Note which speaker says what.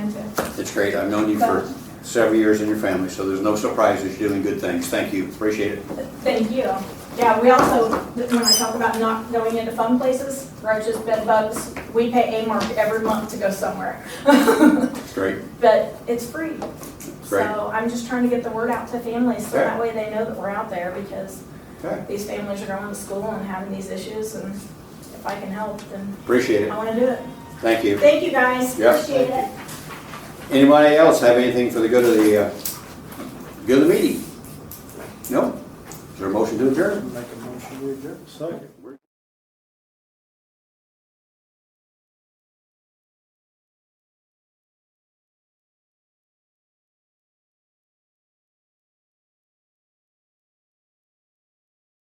Speaker 1: That's great. I've known you for several years in your family, so there's no surprises. You're doing good things. Thank you. Appreciate it.
Speaker 2: Thank you. Yeah, we also, when I talk about not going into fun places, roaches, bed bugs, we pay Amor every month to go somewhere.
Speaker 1: It's great.
Speaker 2: But it's free.
Speaker 1: Great.
Speaker 2: So I'm just trying to get the word out to families so
Speaker 1: Okay.
Speaker 2: that way they know that we're out there because
Speaker 1: Okay.
Speaker 2: these families are going to school and having these issues and if I can help, then
Speaker 1: Appreciate
Speaker 2: I
Speaker 1: it.
Speaker 2: want to do it.
Speaker 1: Thank you.
Speaker 2: Thank you, guys.
Speaker 1: Yeah.
Speaker 2: Appreciate it.
Speaker 1: Anybody else have anything for the good of the, uh, good of the meeting? No? Is there a motion to adjourn?
Speaker 3: Make a motion to adjourn. Second.